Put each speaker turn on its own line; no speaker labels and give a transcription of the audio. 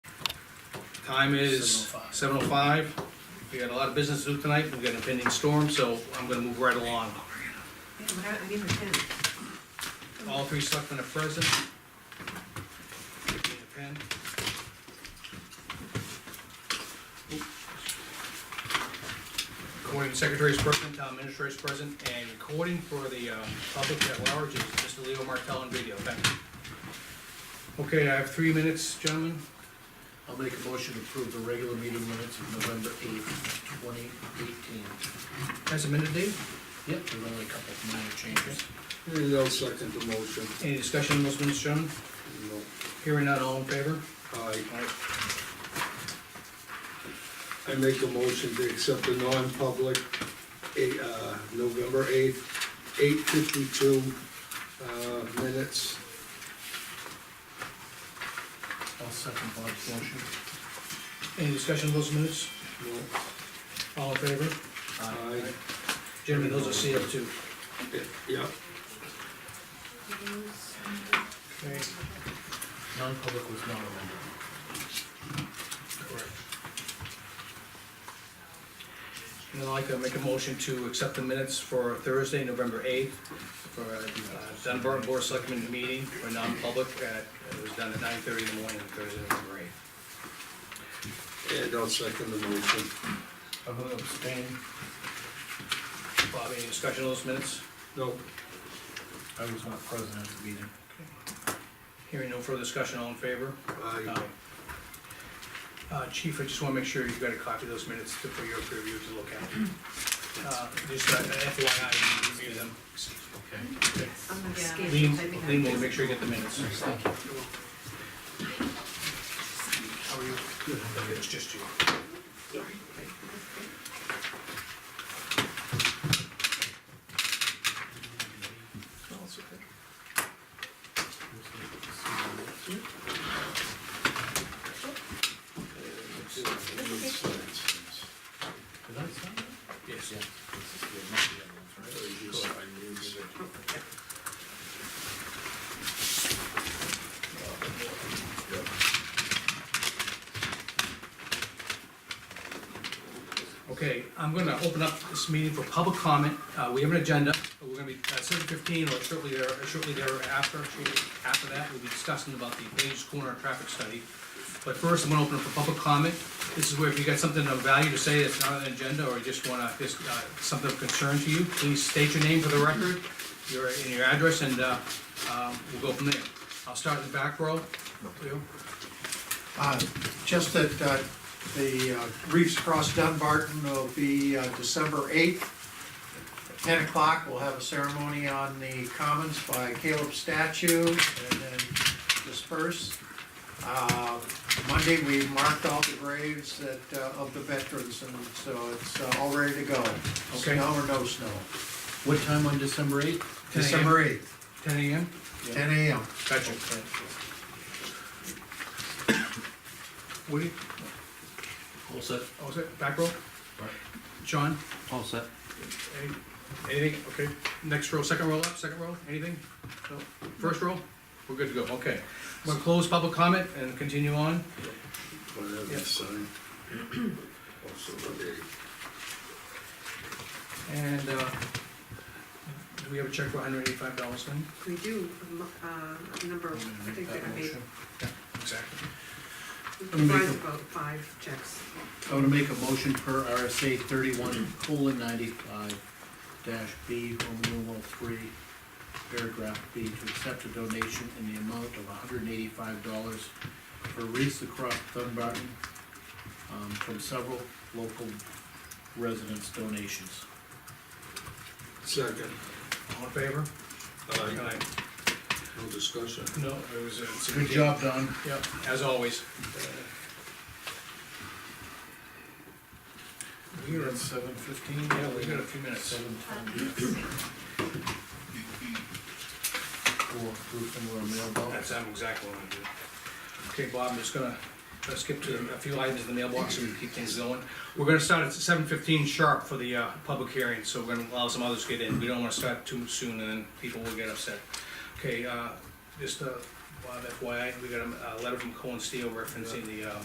Time is
7:05.
seven oh five. We got a lot of business to do tonight, we've got an impending storm, so I'm gonna move right along.
What happened, I gave her ten.
All three selectmen are present. Give me a pen. Recording secretary's present, town administrator's present, and recording for the um, public at large is Mr. Leo Martell on video, thank you. Okay, I have three minutes, gentlemen.
I'll make a motion to approve the regular meeting minutes of November eighth, twenty eighteen.
Has a minute, Dave?
Yep, there were only a couple of minor changes.
And I'll second the motion.
Any discussion on those minutes, gentlemen?
No,
Hearing none, all in favor?
I,
All right.
I make a motion to accept the non-public, eh, uh, November eighth, eight fifty-two, uh, minutes.
I'll second Bob's motion.
Any discussion on those minutes?
No,
All in favor?
I,
Gentlemen, those are sealed too.
eh, yeah,
Okay.
Non-public was not amended.
Correct. And I'd like to make a motion to accept the minutes for Thursday, November eighth, for uh, Dunbar Board of Selectmen meeting for non-public. uh, It was done at nine thirty in the morning, Thursday, November eighth.
and I'll second the motion.
I'm gonna abstain.
Bob, any discussion on those minutes?
No,
I was not present at the meeting.
Hearing no further discussion, all in favor?
I,
Aye. Um, Uh, Chief, I just wanna make sure you've got a copy of those minutes to- for your review to look at. Uh, Just uh, FYI, you review them.
Okay.
I'm gonna scan it,
Lean,
I think I-
Lean will make sure you get the minutes. How are you? Okay, It's just you.
Did I sign that?
Yes. Okay, I'm gonna open up this meeting for public comment. Uh, we have an agenda. We're gonna be, uh, seven fifteen or shortly there, shortly thereafter, shortly after that, we'll be discussing about the Page Corner traffic study. But first, I'm gonna open up for public comment. This is where if you got something of value to say that's not on the agenda, or you just wanna, just, uh, something of concern to you, please state your name for the record, your, and your address, and, uh, um, we'll go from there. I'll start in the back row. Leo?
Uh, Just that uh, the uh, Reefs Cross Dunbarton will be uh, December 8th. At 10 o'clock, we'll have a ceremony on the Commons by Caleb statue and then disperse. Uh, Monday, we marked all the graves that, uh, of the veterans and so it's uh, all ready to go.
Okay.
Snow or no snow.
What time on December eighth?
10 a.m.
December 8th,
Ten AM?
10 a.m.
Gotcha. Woody?
All set.
Oh, is it back row? John?
All set.
Any- Anything, okay, next row, second row up, second row, anything? No. First row? We're good to go, okay. We're gonna close public comment and continue on.
whatever,
Yep.
sign. Also, okay.
And, uh, do we have a check for hundred eighty-five dollars then?
We do, um, uh, a number, I think that I made,
Exactly.
gonna make
comprised
a-
about five checks.
I would make a motion per RSA thirty-one colon ninety-five dash B, Roman numeral three, paragraph B, to accept a donation in the amount of hundred and eighty-five dollars for wreaths across Dunbarton, um, from several local residents' donations.
Second,
All in favor?
aye,
Aye.
no discussion.
No, it was, uh, it's a
Good job, Don.
Yep, as always. We are,
seven fifteen?
yeah, we got a few minutes.
Seven twenty. Or proof and we're a mailbox.
That's, I'm exactly what I'm gonna do. Okay, Bob, I'm just gonna, let's skip to a few items in the mailbox and keep things going. We're gonna start at seven fifteen sharp for the, uh, public hearing, so we're gonna allow some others to get in. We don't wanna start too soon and then people will get upset. Okay, uh, just, uh, Bob FYI, we got a, a letter from Cohen Steel referencing the, uh,